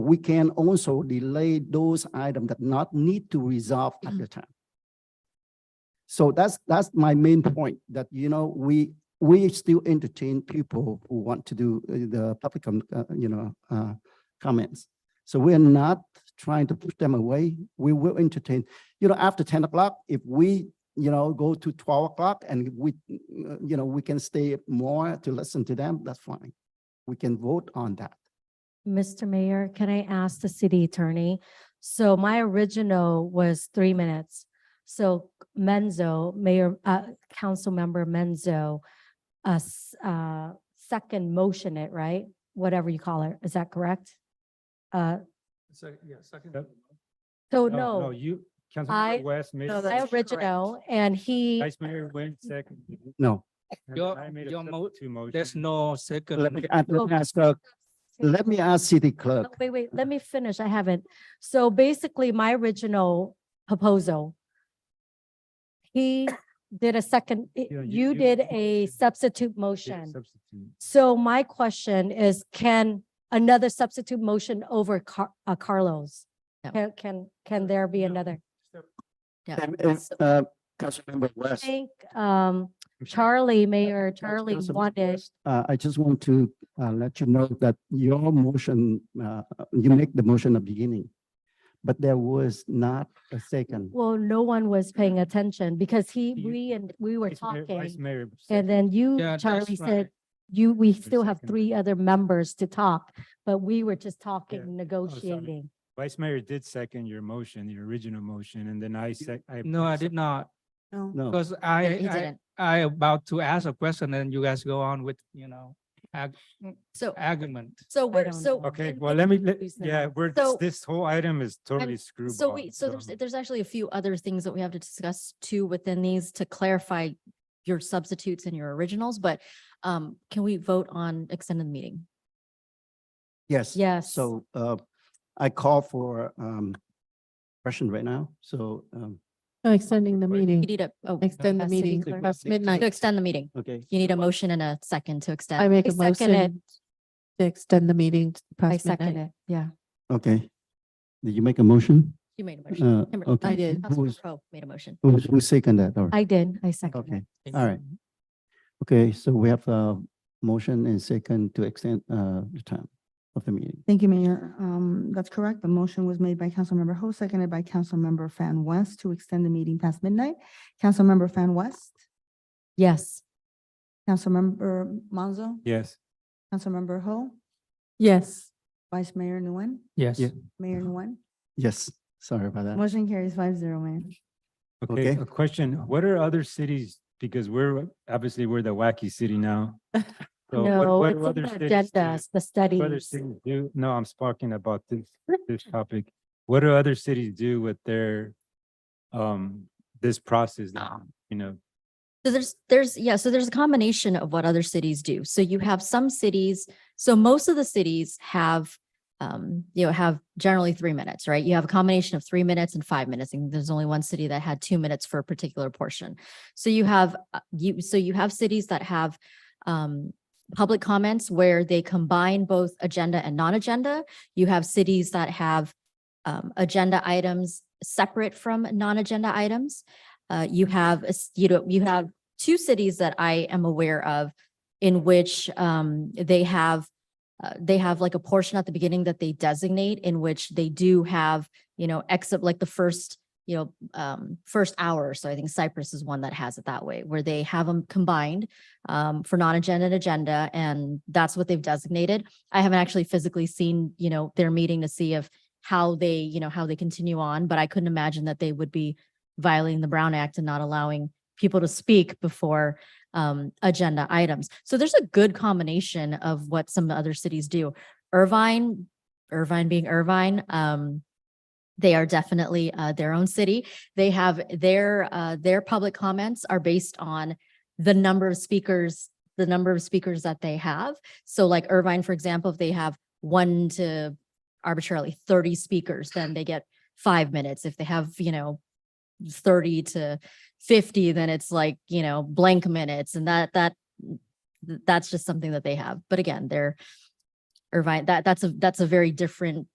we can also delay those items that not need to resolve at the time. So that's, that's my main point, that, you know, we, we still entertain people who want to do uh, the public, com- uh, you know, uh, comments. So we're not trying to push them away. We will entertain, you know, after ten o'clock, if we, you know, go to twelve o'clock and we, uh, you know, we can stay more to listen to them, that's fine. We can vote on that. Mr. Mayor, can I ask the city attorney? So my original was three minutes. So Menzo, Mayor, uh, Councilmember Menzo, uh, s- uh, second motion it, right? Whatever you call it, is that correct? Uh, Second, yeah, second. Yep. so Oh, no, You, I- Councilmember West made, No, it. my that's correct. original, and he, Vice Mayor Nguyen second. No, and Your- I made a your sub- mo- Two motions. There's no second. let me, ask- let me Okay. ask, uh, let me ask city clerk. Oh, wait, wait, let me finish. I haven't. So basically, my original proposal, he did a second, Yeah, you did a substitute Yeah, motion. Substitute. So my question is, can another substitute motion over Car- uh, Carlos? No. Can, can, can there be another? Yeah. And if, uh, Councilmember I West. think, um, Charlie, Mayor Charlie Councilmember wanted, West, Uh, I just want to, uh, let you know that your motion, uh, you make the motion at the beginning. But there was not a second. well, no one was paying attention because he, You- we and, we were Vice Mayor- Vice talking. Mayor. And second. then you, Yeah, Charlie that's said, right. you, we still have second. three other members to talk, but we were just Oh, talking, negotiating. Vice Mayor did second your motion, your original motion, and then I sec. No, I did not, No, No, because he I, I, didn't. I about to ask a question and you guys go on with, you know, ag- So, argument. so we're, don't so. know. Okay, in- well, in- let me, let- Please, no. yeah, we're, So- this whole item is totally screwball. So wait, so Um, there's, there's actually a few other things that we have to discuss too within these to clarify your substitutes and your originals, but um, can we vote on extended meeting? yes. Yes. So, uh, I call for, um, question right now, so, um, No, Oh, Extending the Wait. meeting, You need a, oh, extend the uh, city meeting clerk. past to midnight. extend the meeting. okay. You need a motion and a second to extend. I make I a second it. motion to extend the meeting to I past second midnight. it. Yeah, Okay. Did you make a motion? you made a motion. Uh, Kimber- okay. I did. Who Councilmember was, Pro made a motion. who was, who seconded that? All right. I did, I seconded. Okay, all right. Okay, so we have a motion and second to extend, uh, the time of the meeting. Thank you, Mayor. Um, that's correct. The motion was made by Councilmember Ho, seconded by Councilmember Fan West to extend the meeting past midnight. Councilmember Fan West, Yes. Councilmember Monzo, Yes. Councilmember Ho, Yes. Vice Mayor Nguyen, Yes. Yeah. Mayor Nguyen. Yes, sorry about that. Motion carries five zero, Mayor. Okay, Okay. a question. What are other cities, because we're, obviously, we're the wacky city now. So what- No, what it's do in other the cities do? agendas, the What other studies. cities do, no, I'm talking about this, this topic. What do other cities do with their, um, this process, that, you know? So there's, there's, yeah, so there's a combination of what other cities do. So you have some cities, so most of the cities have, um, you know, have generally three minutes, right? You have a combination of three minutes and five minutes, and there's only one city that had two minutes for a particular portion. So you have, uh, you, so you have cities that have, um, public comments where they combine both agenda and non-agenda. You have cities that have, um, agenda items separate from non-agenda items. Uh, you have, a s- you know, you have two cities that I am aware of in which um, they have, uh, they have like a portion at the beginning that they designate in which they do have, you know, except like the first, you know, um, first hour. or So I think Cyprus is one that has it that way, where they have them combined um, for non-agenda and agenda, and that's what they've designated. I haven't actually physically seen, you know, their meeting to see if how they, you know, how they continue on, but I couldn't imagine that they would be violating the Brown Act and not allowing people to speak before um, agenda items. So there's a good combination of what some other cities do. Irvine, Irvine being Irvine, um, they are definitely uh, their own city. They have their uh, their public comments are based on the number of speakers, the number of speakers that they have. So like Irvine, for example, if they have one to arbitrarily 30 speakers, then they get five minutes. If they have, you know, 30 to 50 then it's like you know blank minutes and that that th- that's just something that they have but again they're irvine that that's a that's a very different